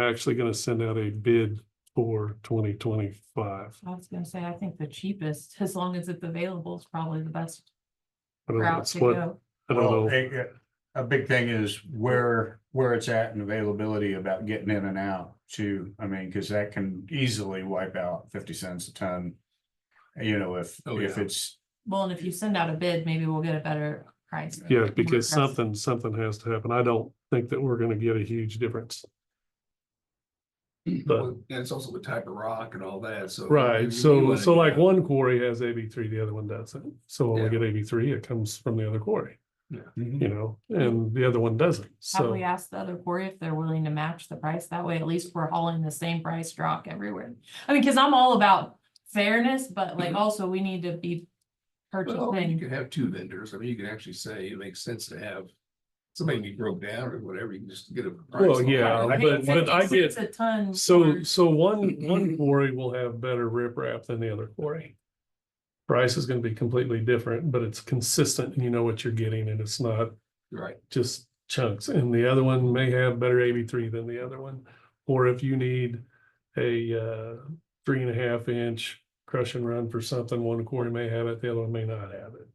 actually gonna send out a bid for twenty twenty-five. I was gonna say, I think the cheapest, as long as it's available, is probably the best I don't know, route it's to what, go. I Well, don't know, a, a big thing is where, where it's at and availability about getting in and out too. I mean, cause that can easily wipe out fifty cents a ton. You know, if, Oh, if yeah. it's, Well, and if you send out a bid, maybe we'll get a better price. yeah, because More press. something, something has to happen. I don't think that we're gonna get a huge difference. But- Well, And it's also the type of rock and all that, so. you- you Right, so, wanna so like get- one quarry has AB three, the other one doesn't. So when we Yeah. get AB three, it comes from the other quarry, Mhm. you know, and the other one doesn't, Have so. we asked the other quarry if they're willing to match the price? That way, at least we're hauling the same price rock everywhere. I mean, cause I'm all about fairness, but Mm-hmm. like also we need to be Well, you purchasing. could have two vendors. I mean, you can actually say it makes sense to have somebody be broke down or whatever, you can just get a. price Well, on yeah, it. I- but- but I It's get- a ton. So, for- so one, one quarry will have better riprap than the other quarry. Price is gonna be completely different, but it's consistent and you know what you're getting and it's not Right, just chunks. And the other one may have better AB three than the other one. Or if you need a uh, three and a half inch crush and run for something, one quarry may have it, the other one may not have it.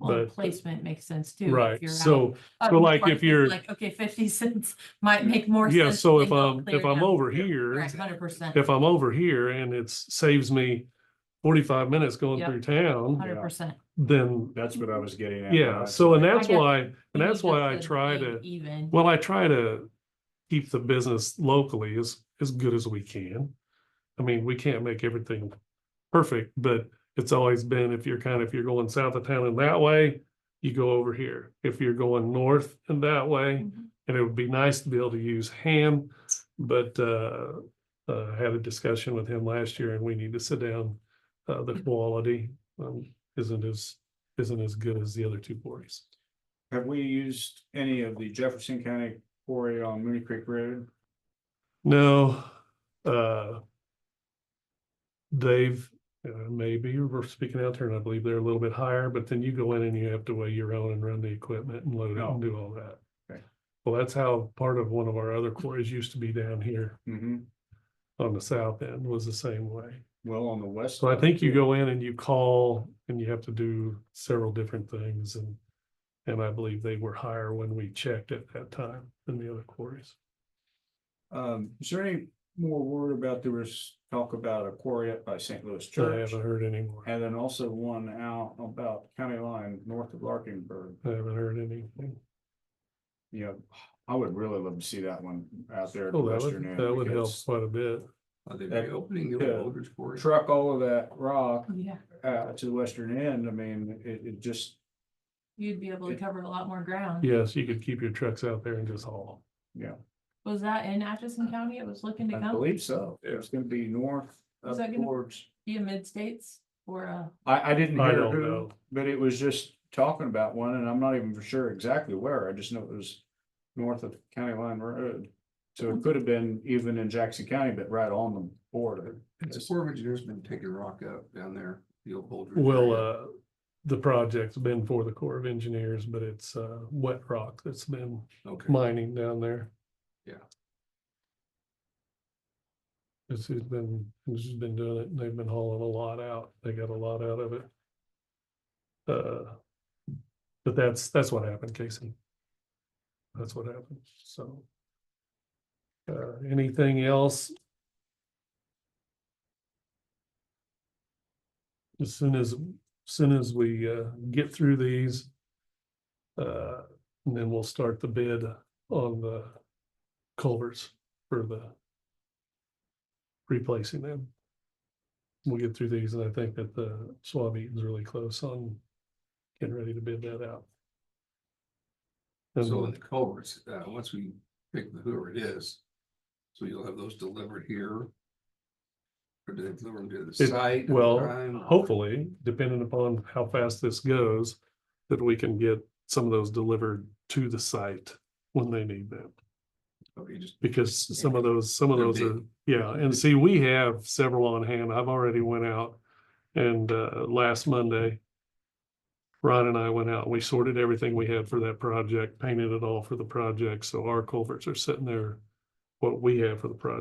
Well, but- Placement makes sense too. if Right, you're out so, up so in like front, if it's you're- Like, okay, fifty cents might make more. yeah, sense so than if go I'm, clear if I'm down. over here, Right, hundred percent, if I'm over here and it's saves me forty-five minutes going Yep. through town, hundred percent. then, That's what I was getting at. yeah, so and that's guess why, and that's why I try to, Even. well, I try to keep the business locally as, as good as we can. I mean, we can't make everything perfect, but it's always been, if you're kind of, if you're going south of town in that way, you go over here. If you're going north in that way, Mhm. and it would be nice to be able to use ham, but uh, uh, had a discussion with him last year, and we need to sit down. Uh, the quality um, isn't as isn't as good as the other two quarries. Have we used any of the Jefferson County quarry on Mooney Creek Road? No, uh, they've uh, maybe we're speaking out there, and I believe they're a little bit higher. But then you go in and you have to weigh your own and run the equipment and load it and do all that. Okay. Well, that's how part of one of our other quarries used to be down here. Mm-hmm. on the south end was the same way. Well, on the west. So I think you side, go in and you call and you have to do several different things and. And I believe they were higher when we checked at that time than the other quarries. Um, is there any more word about, there was talk about a quarry up by St. Louis I Church? haven't heard any more. I And then also one out about county line north of Larkinburg. haven't heard anything. you know, I would really love to see that one out there. in Oh, that Western would, end that would help because quite a bit. are they reopening the Yeah. old Aldridge Quarry? Truck all of that rock Yeah, uh to the western end, I mean, it it just, you'd be able to It- cover a lot more Hmm. ground. Yes, you could keep your trucks out there and just haul. Was that in Atchison County? It was looking to I come, believe so, it's gonna be north Is up that gonna- towards. be a mid-states uh, or a, I I didn't I hear don't who, know. but it was just talking about one and I'm not even for sure exactly where, I just know it was north of county line road. So it could have been even in Jackson County, but right on the border. The Corps of Engineers been taking rock up down there, the old Aldridge. Well, area. uh, the project's been for the Corps of Engineers, but it's, uh, wet rock that's been Okay, mining down there. Yeah. This has been, this has been doing it, and they've been hauling a lot out, they got a lot out of it. Uh, but that's, that's what happened, Casey. That's what happened, so. Uh, anything else? As soon as, as soon as we, uh, get through these. Uh, and then we'll start the bid on the culverts for the replacing them. We'll get through these, and I think that the swab meeting's really close on getting ready to bid that out. so in And the culverts, uh, once we pick whoever it is. So you'll have those delivered here. Or do they deliver them to the It- site? at the time, well, or- hopefully, depending upon how fast this goes, that we can get some of those delivered to the site when they need them. Okay, just because some of those, some of They're those are, big. yeah, and see, we have several on hand. I've already went out and uh last Monday. Ron and I went out, and we sorted everything we had for that project, painted it all for the project, so our culverts are sitting there what we have for the project.